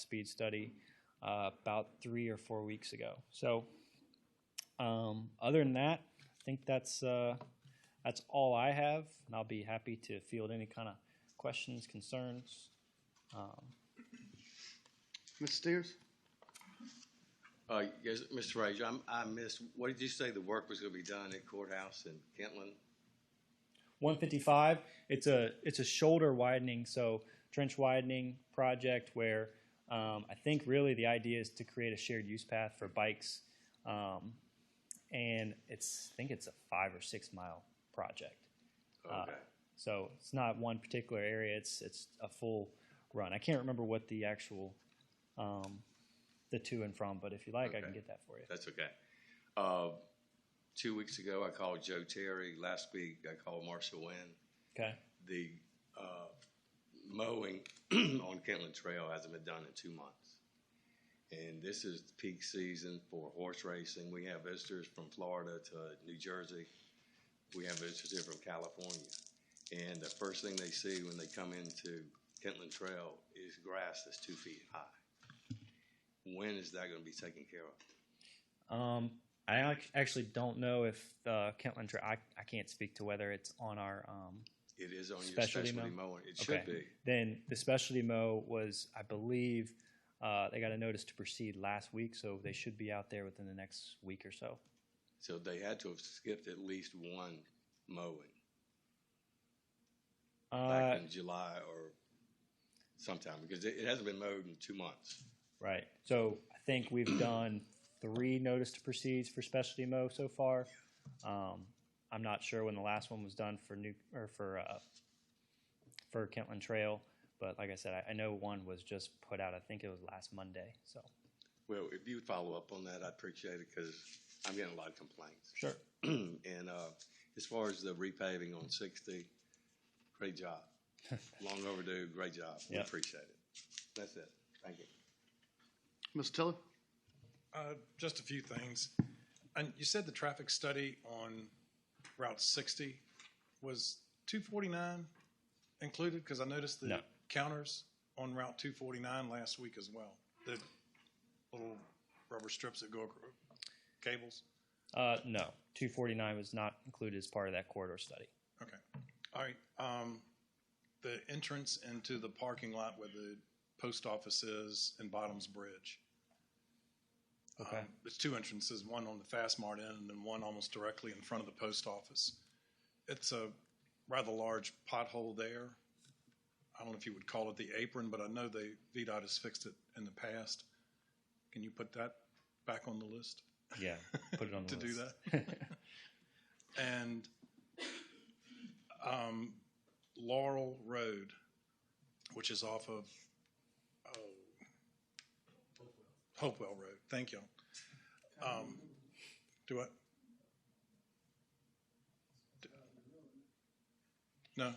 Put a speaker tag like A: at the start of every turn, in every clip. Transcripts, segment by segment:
A: speed study uh, about three or four weeks ago. So, um, other than that, I think that's uh, that's all I have, and I'll be happy to field any kind of questions, concerns.
B: Mr. Steers?
C: Uh, yes, Mr. Frazier, I'm, I missed, what did you say the work was gonna be done at courthouse in Kentland?
A: 155. It's a it's a shoulder widening, so trench widening project where um, I think really the idea is to create a shared use path for bikes, um, and it's I think it's a five or six mile project.
C: Okay,
A: So it's not one particular area. It's it's a full run. I can't remember what the actual um, the to and from, but if you like, I can
C: Okay.
A: get that for you.
C: that's okay. Uh, two weeks ago, I called Joe Terry. Last week, I called Marshall Wynn.
A: Okay.
C: The, uh, mowing on Kentland Trail hasn't been done in two months. And this is peak season for horse racing. We have visitors from Florida to New Jersey. We have visitors here from California. And the first thing they see when they come into Kentland Trail is grass that's two feet high. When is that gonna be taken care of?
A: Um, I ac- actually don't know if uh, Kentland. Tra- I I can't speak to whether it's on our. Um,
C: It is on your
A: Specialty
C: specialty
A: mow?
C: mowing. It should be.
A: Then the specialty mow was, I believe, uh, they got a notice to proceed last week, so they should be out there within the next week or so.
C: So they had to have skipped at least one mowing.
A: Uh,
C: back in July or sometime because it, it hasn't been mowed in two months.
A: right. So I think we've done three notice to proceeds for specialty mow so far. Um, I'm not sure when the last one was done for new or for uh, for Kentland Trail, but like I said, I, I know one was just put out. I think it was last Monday. So
C: Well, if you would follow up on that, I'd appreciate it because I'm getting a lot of complaints.
A: sure.
C: and uh, as far as the repaving on 60, great job. Long overdue, great job. We
A: Yeah.
C: appreciate it. That's it. Thank you.
B: Mr. Tiller?
D: Uh, Just a few things. And you said the traffic study on Route 60 was 249 included? Because I noticed the
A: No.
D: counters on Route 249 last week as well. The little rubber strips that go across cables?
A: Uh, no, 249 was not included as part of that corridor study.
D: Okay. All right. Um, The entrance into the parking lot where the post office is and Bottoms Bridge.
A: Okay.
D: Um, There's two entrances, one on the Fast Mart end and then one almost directly in front of the post office. It's a rather large pothole there. I don't know if you would call it the apron, but I know they, VDOT has fixed it in the past. Can you put that back on the list?
A: yeah, put it on the
D: to do
A: list.
D: that. and um, Laurel Road, which is off of oh, Hopewell Road. Thank you. Um, do what? No,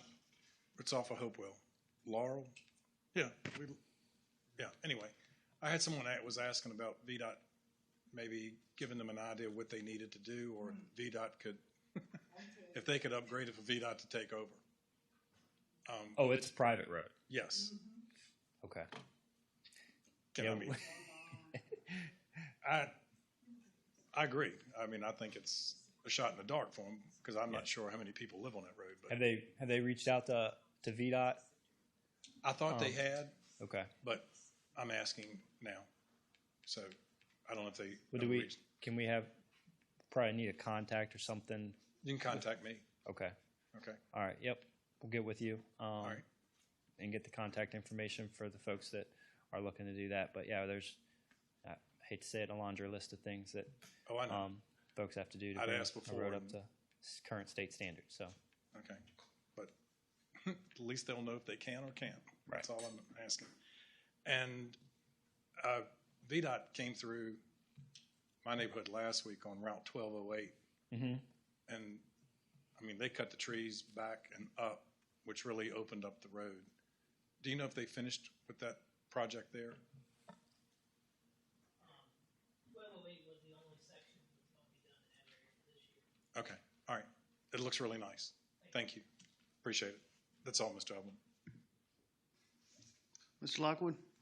D: it's off of Hopewell. Laurel? Yeah, we, yeah, anyway. I had someone that was asking about VDOT maybe giving them an idea of what they needed to do, or VDOT could, if they could upgrade it for VDOT to take over. Um,
A: Oh, it's a private road.
D: Yes.
A: Okay.
D: Can I
A: Yeah.
D: mean- I, I agree. I mean, I think it's a shot in the dark for them, because I'm
A: Yeah.
D: not sure how many people live on that road,
A: Have
D: but
A: they have they reached out to to VDOT?
D: I thought they
A: um,
D: had,
A: Okay.
D: but I'm asking now. So I don't know if they.
A: Well, do we
D: reached-
A: can we have probably need a contact or something?
D: You can contact me,
A: Okay.
D: okay?
A: All right. Yep. We'll get with you. Um,
D: All right.
A: and get the contact information for the folks that are looking to do that. But yeah, there's I hate to say it, a laundry list of things that
D: Oh, I know,
A: um, folks have to do to
D: I'd
A: bring
D: asked
A: a
D: before
A: road up
D: and-
A: to s- current state standards. So
D: okay. But at least they'll know if they can or can't. That's all I'm asking. And uh, VDOT came through my neighborhood last week on Route 1208.
A: Mhm.
D: And, I mean, they cut the trees back and up, which really opened up the road. Do you know if they finished with that project there?
E: Level eight was the only section that's gonna be done in that area this year.
D: Okay, all right. It looks really nice. Thank you. Appreciate it. That's all, Mr. Evelyn.
B: Mr. Lockwood?